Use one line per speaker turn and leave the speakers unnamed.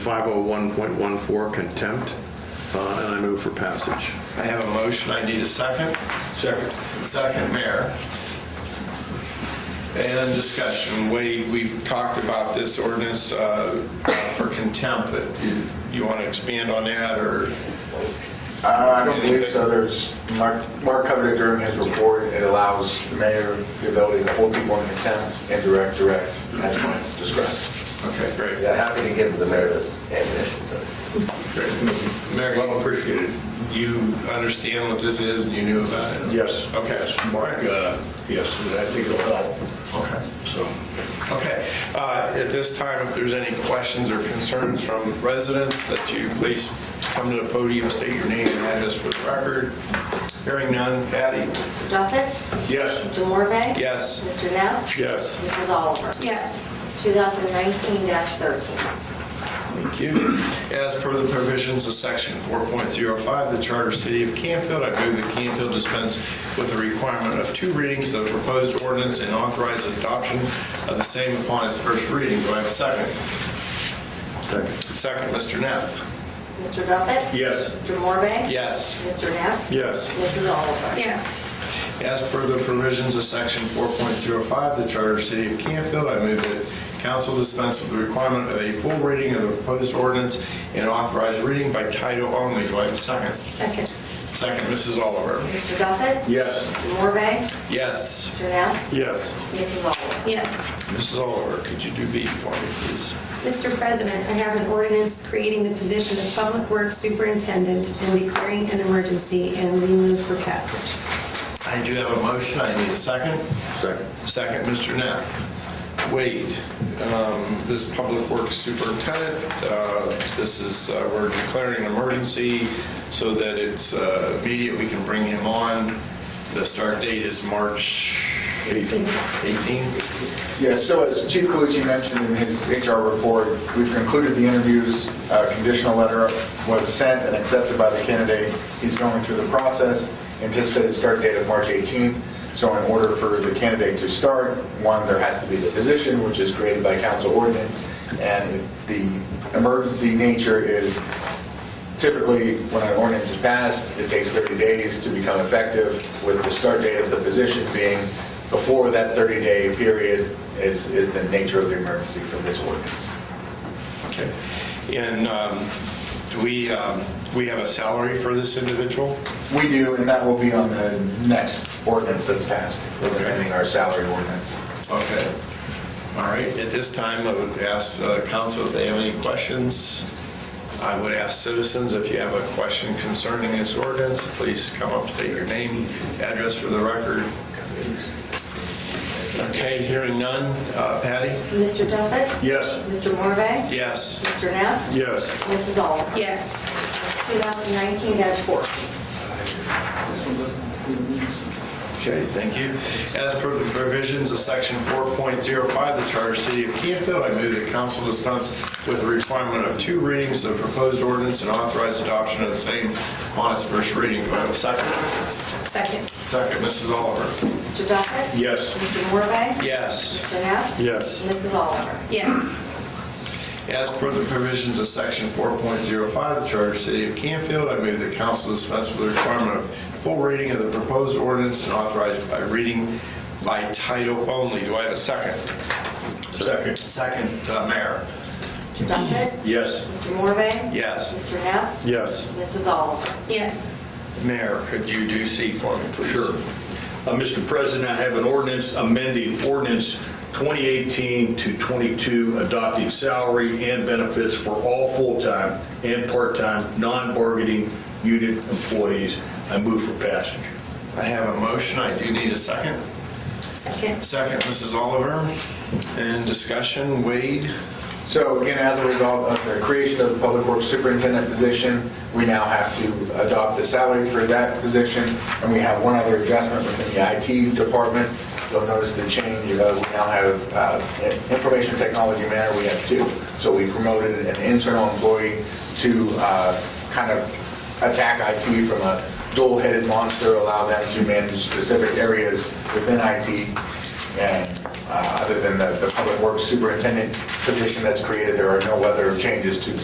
501.14 contempt, uh, and I move for passage.
I have a motion, I need a second. Second. Second, Mayor. And discussion, Wade, we've talked about this ordinance uh, for contempt, but you- you want to expand on that, or?
Uh, I don't believe so. There's, Mark Mark covered it during his report. It allows the mayor the ability to hold people in contempt and direct, direct, as Mike described.
Okay, great.
Yeah, happy to give the mayor this ammunition, so to speak.
Great. Mayor, well appreciated. You understand what this is, and you knew about it?
Yes.
Okay.
Mark, uh, yes, I think it'll help,
Okay.
so.
Okay, uh, at this time, if there's any questions or concerns from residents, that you please come to the podium, state your name and address for the record. Hearing none, Patty?
Mr. Duffett?
Yes.
Mr. Morvay?
Yes.
Mr. Neff?
Yes.
Mrs. Oliver?
Yes.
2019-13.
Thank you. As per the provisions of Section 4.05 of the Charter of the City of Campfield, I move that Campfield dispense with the requirement of two readings of the proposed ordinance and authorize adoption of the same upon its first reading. Do I have a second? Second. Second, Mr. Neff?
Mr. Duffett?
Yes.
Mr. Morvay?
Yes.
Mr. Neff?
Yes.
Mrs. Oliver?
Yes.
As per the provisions of Section 4.05 of the Charter of the City of Campfield, I move that council dispense with the requirement of a full reading of the proposed ordinance and authorize reading by title only. Do I have a second?
Second.
Second, Mrs. Oliver.
Mr. Duffett?
Yes.
Mr. Morvay?
Yes.
Mr. Neff?
Yes.
Mrs. Oliver?
Yes.
Mrs. Oliver, could you do B for me, please?
Mr. President, I have an ordinance creating the position of Public Works Superintendent and declaring an emergency, and we move for passage.
I do have a motion. I need a second. Second. Second, Mr. Knapp. Wade, um, this Public Works Superintendent, uh, this is, uh, we're declaring an emergency so that it's uh, immediate, we can bring him on. The start date is March 18th.
Yeah, so as Chief Calucci mentioned in his HR report, we've concluded the interviews. A conditional letter was sent and accepted by the candidate. He's going through the process. Anticipated start date of March 18th. So in order for the candidate to start, one, there has to be the position, which is created by council ordinance. And the emergency nature is typically, when an ordinance is passed, it takes 30 days to become effective, with the start date of the position being before that 30-day period is, is the nature of the emergency for this ordinance.
Okay. And um, do we, um, we have a salary for this individual?
We do, and that will be on the next ordinance that's passed, amending our salary ordinance.
Okay. All right, at this time, I would ask uh, council if they have any questions. I would ask citizens, if you have a question concerning this ordinance, please come up, state your name, address for the record. Okay, hearing none. Uh, Patty?
Mr. Duffett?
Yes.
Mr. Morvay?
Yes.
Mr. Neff?
Yes.
Mrs. Oliver?
Yes.
2019-14.
Okay, thank you. As per the provisions of Section 4.05 of the Charter of the City of Campfield, I move that council dispense with the requirement of two readings of proposed ordinance and authorize adoption of the same on its first reading. Do I have a second?
Second.
Second, Mrs. Oliver.
Mr. Duffett?
Yes.
Mr. Morvay?
Yes.
Mr. Neff?
Yes.
Mrs. Oliver?
Yes.
As per the provisions of Section 4.05 of the Charter of the City of Campfield, I move that council dispense with the requirement of full reading of the proposed ordinance and authorize by reading by title only. Do I have a second?
Second.
Second, uh, Mayor.
Mr. Duffett?
Yes.
Mr. Morvay?
Yes.
Mr. Neff?
Yes.
Mrs. Oliver?
Yes.
Mayor, could you do C for me, please?
Sure. Uh, Mr. President, I have an ordinance amending ordinance 2018 to 22, adopting salary and benefits for all full-time and part-time, non-bargaining unit employees. I move for passage.
I have a motion, I do need a second.
Second.
Second, Mrs. Oliver. And discussion, Wade?
So again, as a result of the creation of the Public Works Superintendent position, we now have to adopt the salary for that position, and we have one other adjustment within the IT department. You'll notice the change, uh, we now have, uh, in information technology manner, we have two. So we promoted an internal employee to uh, kind of attack IT from a dual-headed monster, allow them to manage specific areas within IT. And uh, other than the the public works superintendent position that's created, there are no other changes to the